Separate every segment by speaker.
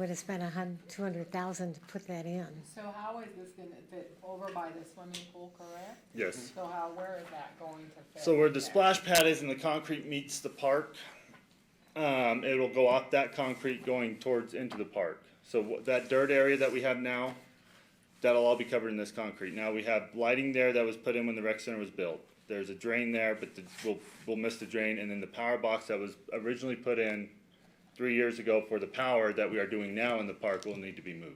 Speaker 1: Would have spent a hun, two hundred thousand to put that in.
Speaker 2: So how is this gonna fit over by the swimming pool, correct?
Speaker 3: Yes.
Speaker 2: So how, where is that going to fit?
Speaker 3: So where the
Speaker 2: there?
Speaker 3: splash pad is and the concrete meets the park, um, it'll go off that concrete going towards into the park. So wh- that dirt area that we have now, that'll all be covered in this concrete. Now we have lighting there that was put in when the rec center was built. There's a drain there, but the, we'll, we'll miss the drain, and then the power box that was originally put in three years ago for the power that we are doing now in the park will need to be moved.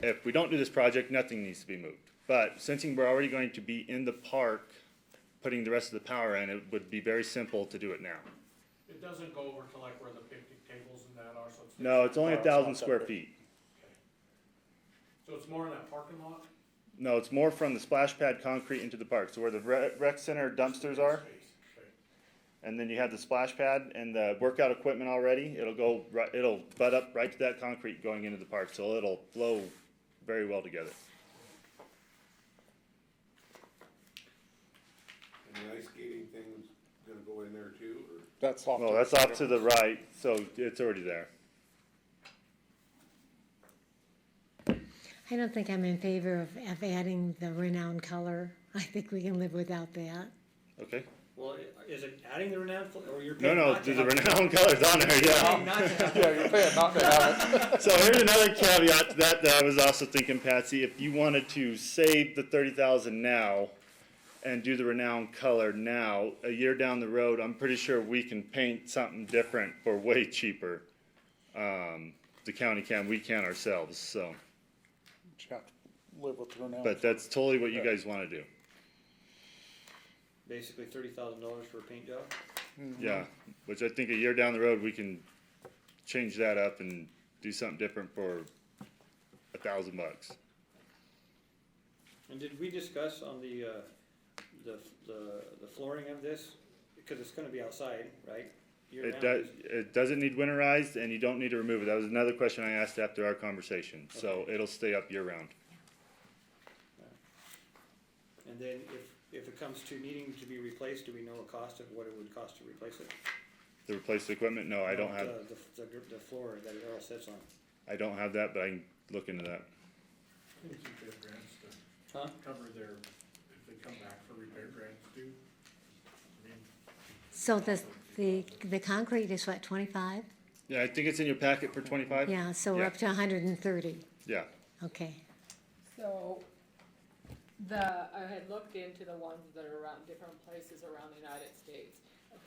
Speaker 3: If we don't do this project, nothing needs to be moved. But since we're already going to be in the park, putting the rest of the power in, it would be very simple to do it now.
Speaker 4: It doesn't go over to like where the picnic tables and that are, so it's. Uh,
Speaker 3: No, it's
Speaker 5: Oh,
Speaker 3: only a
Speaker 6: Power's not
Speaker 3: thousand square
Speaker 6: separate.
Speaker 3: feet.
Speaker 4: So it's more in that parking lot?
Speaker 3: No, it's more from the splash pad concrete into the park, so where the rec, rec center dumpsters are,
Speaker 4: Space, okay.
Speaker 3: and then you have the splash pad and the workout equipment already, it'll go right, it'll butt up right to that concrete going into the park, so it'll flow very well together.
Speaker 7: And the ice skating thing's gonna go in there too, or?
Speaker 6: That's off.
Speaker 3: Well, that's off to the right, so it's already there.
Speaker 1: I don't think I'm in favor of, of adding the renowned color. I think we can live without that.
Speaker 3: Okay?
Speaker 5: Well, i- is it adding the renowned, fl- or you're
Speaker 3: No,
Speaker 5: paying
Speaker 3: no,
Speaker 5: not
Speaker 3: the
Speaker 5: to have?
Speaker 3: renowned colors on there, yeah.
Speaker 5: Paying not to have
Speaker 6: Yeah, you're paying not to have it.
Speaker 3: So here's another caveat to that that I was also thinking, Patsy. If you wanted to save the thirty thousand now and do the renowned color now, a year down the road, I'm pretty sure we can paint something different for way cheaper. Um, the county can, we can ourselves. So,
Speaker 6: You have to live with her now.
Speaker 3: but that's totally what you guys want to do.
Speaker 5: basically thirty thousand dollars for a paint job.
Speaker 3: Yeah, which I think a year down the road we can change that up and do something different for a thousand bucks.
Speaker 5: And did we discuss on the, uh, the, the, the flooring of this? Because it's gonna be outside, right? Year
Speaker 3: It
Speaker 5: round,
Speaker 3: does,
Speaker 5: is-
Speaker 3: it doesn't need winterized and you don't need to remove it. That was another question I asked after our conversation. So it'll stay up year round.
Speaker 5: And then if, if it comes to needing to be replaced, do we know a cost of what it would cost to replace it?
Speaker 3: To replace the equipment, no, I don't
Speaker 5: Uh,
Speaker 3: have,
Speaker 5: The, the, gr- the floor that it all sits on.
Speaker 3: I don't have that, but I can look into that.
Speaker 4: They keep their grants to
Speaker 5: Huh?
Speaker 4: cover their, if they come back for repair grants too. I mean,
Speaker 1: So the, the, the concrete is what, twenty-five?
Speaker 3: Yeah, I think it's in your packet for twenty-five?
Speaker 1: Yeah, so we're
Speaker 3: Yeah.
Speaker 1: up to hundred and thirty.
Speaker 3: Yeah,
Speaker 1: Okay.
Speaker 2: So, the, I had looked into the ones that are around different places around the United States.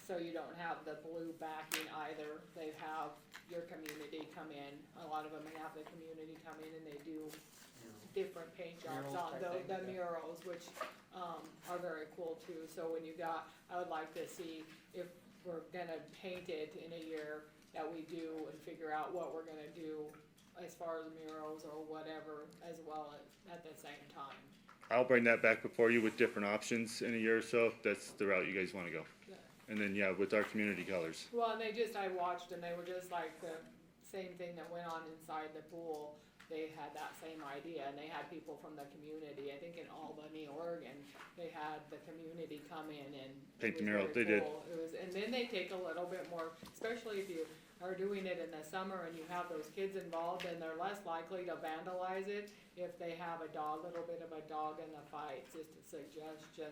Speaker 2: So you don't have the blue backing either, they have your community come in, a lot of them have the community come in and they do different paint jobs
Speaker 5: Murals
Speaker 2: on
Speaker 5: type
Speaker 2: the,
Speaker 5: thing,
Speaker 2: the
Speaker 5: yeah.
Speaker 2: murals, which, um, are very cool too. So when you got, I would like to see if we're gonna paint it in a year, that we do and figure out what we're gonna do as far as murals or whatever as well at, at the same time.
Speaker 3: I'll bring that back before you with different options in a year or so. if That's the route you guys wanna go.
Speaker 2: Yeah.
Speaker 3: And then, yeah, with our community colors.
Speaker 2: Well, and they just, I watched and they were just like the same thing that went on inside the pool. They had that same idea and they had people from the community, I think in Albany, Oregon, they had the community come in and. it
Speaker 3: Paint
Speaker 2: was
Speaker 3: the mural,
Speaker 2: very
Speaker 3: they did.
Speaker 2: cool. It was, and then they take a little bit more, especially if you are doing it in the summer and you have those kids involved, then they're less likely to vandalize it if they have a dog, little bit of a dog in the fight, just a suggestion.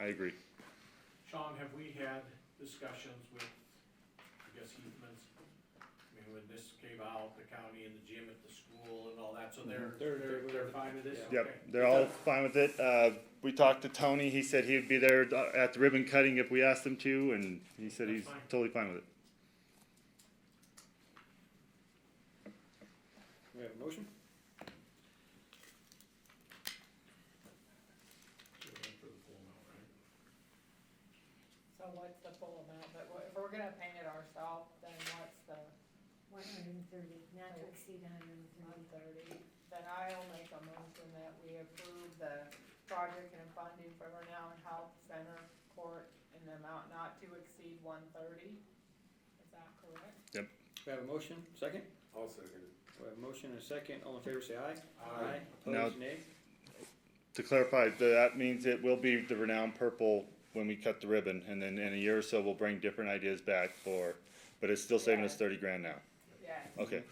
Speaker 3: I agree.
Speaker 4: Sean, have we had discussions with, I guess, Heathman's? I mean, when this came out, the county and the gym at the school and all that, so they're,
Speaker 5: They're-
Speaker 4: they're,
Speaker 5: they're-
Speaker 4: they're fine with this?
Speaker 5: yeah.
Speaker 3: Yep,
Speaker 4: Okay.
Speaker 3: they're all fine with it. Uh, we talked to Tony. He said he'd be there at the ribbon cutting if we asked him to, and he said
Speaker 4: That's
Speaker 3: he's
Speaker 4: fine.
Speaker 3: totally fine with it.
Speaker 5: We have a motion?
Speaker 4: They're in for the full amount, right?
Speaker 2: So what's the full amount, but what- if we're gonna paint it ourselves, then what's the
Speaker 1: One hundred and thirty, not
Speaker 2: to
Speaker 1: exceed hundred and
Speaker 2: one thirty? Then I'll make a motion that we approve the project and funding for Renown Health Center Court in the amount not to exceed one thirty. Is that correct?
Speaker 5: We have a motion, second?
Speaker 7: I'll second it.
Speaker 5: We have a motion and a second. All in favor, say aye.
Speaker 4: Aye.
Speaker 3: Now-
Speaker 5: Opposed, nay?
Speaker 3: To clarify, th- that means it will be the renowned purple when we cut the ribbon, and then in a year or so, we'll bring different ideas back for, but it's still saving us
Speaker 2: Yeah.
Speaker 3: thirty grand now.
Speaker 2: Yes.
Speaker 3: Okay,